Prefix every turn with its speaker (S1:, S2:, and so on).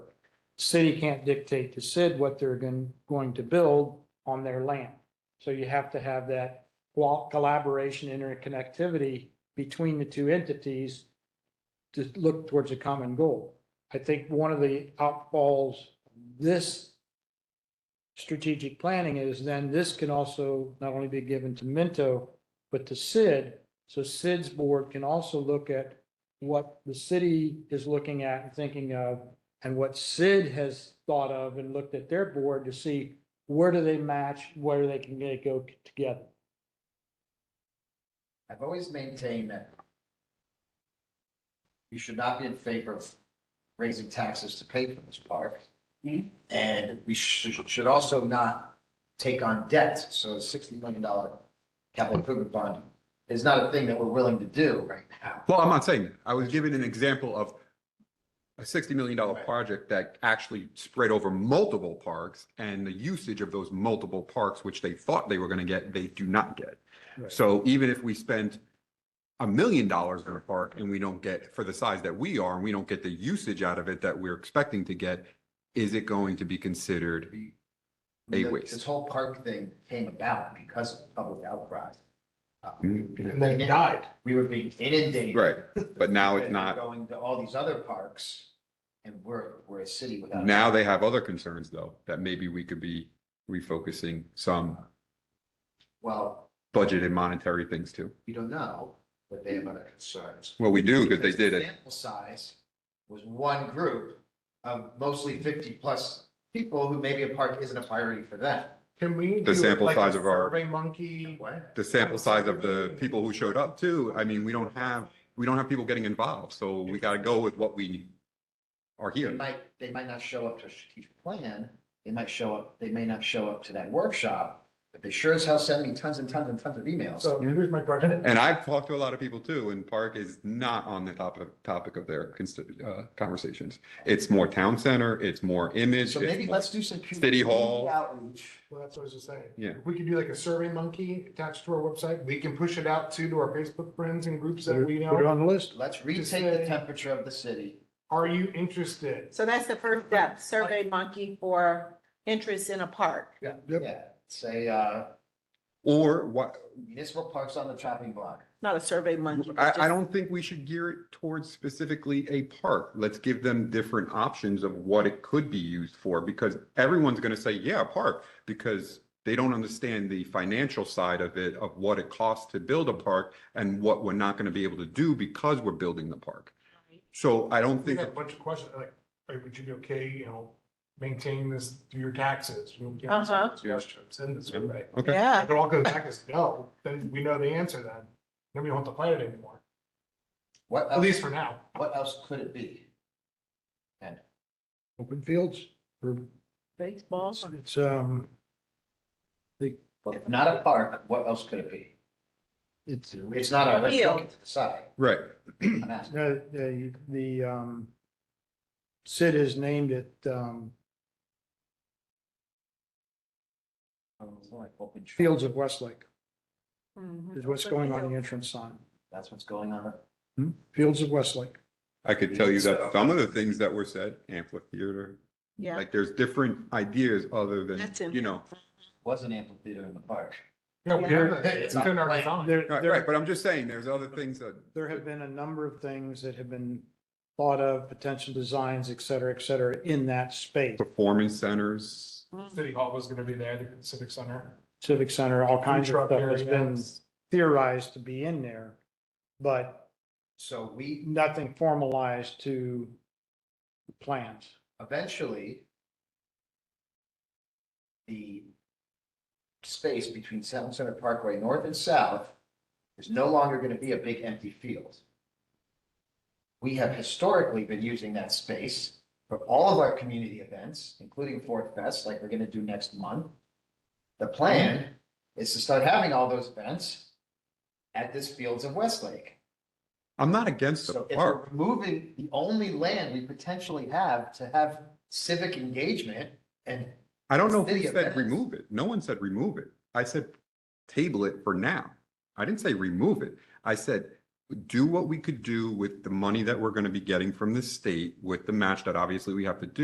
S1: city can't dictate to Sid what they're going, going to build on their land. So you have to have that wall collaboration, interconnectivity between the two entities to look towards a common goal. I think one of the outfalls, this strategic planning is then this can also not only be given to Minto, but to Sid. So Sid's board can also look at what the city is looking at and thinking of and what Sid has thought of and looked at their board to see where do they match, where they can they go together.
S2: I've always maintained that you should not be in favor of raising taxes to pay for this park.
S3: Mm-hmm.
S4: Mhm.
S2: And we should, should also not take on debt. So a sixty million dollar capital improvement bond is not a thing that we're willing to do right now.
S5: Well, I'm not saying that. I was giving an example of a sixty million dollar
S2: Right.
S5: project that actually spread over multiple parks and the usage of those multiple parks, which they thought they were gonna get, they do not get.
S1: Right.
S5: So even if we spent a million dollars in a park and we don't get, for the size that we are, and we don't get the usage out of it that we're expecting to get, is it going to be considered?
S2: We- we-
S5: A waste.
S2: This whole park thing came about because of public outcry. Uh,
S3: Mm-hmm. And then it died.
S2: We were being inundated.
S5: Right, but now it's
S2: with
S5: not.
S2: Going to all these other parks and we're, we're a city without.
S5: Now they have other concerns though, that maybe we could be refocusing some
S2: Well,
S5: budget and monetary things too.
S2: you don't know what they have other concerns.
S5: Well, we do, because they
S2: Because the
S5: did it.
S2: Sample size was one group of mostly fifty plus people who maybe a park isn't a priority for them.
S3: Can we?
S5: The
S3: do
S5: sample
S3: like a
S5: size of our-
S3: Survey monkey.
S2: What?
S5: The sample size of the people who showed up too, I mean, we don't have, we don't have people getting involved, so we gotta go with what we are
S2: They
S5: here.
S2: might, they might not show up to a strategic plan, they might show up, they may not show up to that workshop, but they sure as hell send me tons and tons and tons of emails.
S3: So here's my question.
S5: And I've talked to a lot of people too, and park is not on the top of, topic of their consti- uh, conversations. It's more town center, it's more image.
S2: So
S5: it's
S2: maybe
S5: more-
S2: let's do some. community
S5: City Hall.
S2: Outreach.
S3: Well, that's what I was just saying.
S5: Yeah.
S3: If we could do like a survey monkey attached to our website, we can push it out too to our Facebook friends and groups that we
S1: Put it
S3: know.
S1: on the list.
S2: Let's
S3: Just
S2: retake the
S3: say-
S2: temperature of the city.
S3: Are you interested?
S4: So that's the first step, Survey Monkey for interest in a park.
S2: Yeah, say, uh,
S5: Or what,
S2: municipal parks on the chopping block.
S4: Not a Survey Monkey. but
S5: I, I
S4: just-
S5: don't think we should gear it towards specifically a park. Let's give them different options of what it could be used for, because everyone's gonna say, yeah, a park, because they don't understand the financial side of it, of what it costs to build a park and what we're not gonna be able to do because we're building the park. So I don't
S3: We
S5: think,
S3: got a bunch of questions like, hey, would you be okay, you know, maintaining this through your taxes? We'll get some
S4: Uh-huh.
S3: Suggestions in the survey.
S5: okay,
S4: Yeah,
S3: If it all goes back as no, then we know the answer then. Then we don't have to plan it anymore,
S2: What
S3: at
S2: else,
S3: least for now.
S2: what else could it be?
S1: Open fields. or
S4: baseball.
S1: It's, um,
S2: If not a park, what else could it be?
S1: it's, uh,
S2: It's not our, let's look to the side.
S5: right.
S2: I'm asking.
S1: the, the, uh, the, um, Sid has named it, um,
S2: Oh, It's like open tra-
S1: Fields of Westlake
S4: Mhm.
S1: is what's going on the entrance sign.
S2: That's what's going on.
S1: Hmm? Fields of Westlake.
S5: I could tell you that some of the things that were said, amphitheater,
S4: Yeah,
S5: like there's different ideas other than,
S4: That's in-
S5: you know.
S2: Was an amphitheater in the park.
S3: Yeah, we have that. It's in our design.
S1: There,
S5: Right,
S1: there-
S5: right, but I'm just saying, there's other things that
S1: there have been a number of things that have been thought of, potential designs, et cetera, et cetera, in that space.
S5: performance centers,
S3: City Hall was gonna be there, the Civic Center.
S1: Civic Center, all kinds of
S3: Truck
S1: stuff has been
S3: areas.
S1: theorized to be in there, but
S2: So we
S1: nothing formalized to plans.
S2: eventually the space between Town Center Parkway North and South is no longer going to be a big empty field. We have historically been using that space for all of our community events, including Fourth Fest, like we're going to do next month. The plan is to start having all those events at this Fields of Westlake.
S5: I'm not against the
S2: So if we're
S5: park.
S2: removing the only land we potentially have to have civic engagement and
S5: I don't know who
S2: City
S5: said
S2: events.
S5: remove it. No one said remove it. I said table it for now. I didn't say remove it. I said do what we could do with the money that we're going to be getting from the state with the match that obviously we have to do.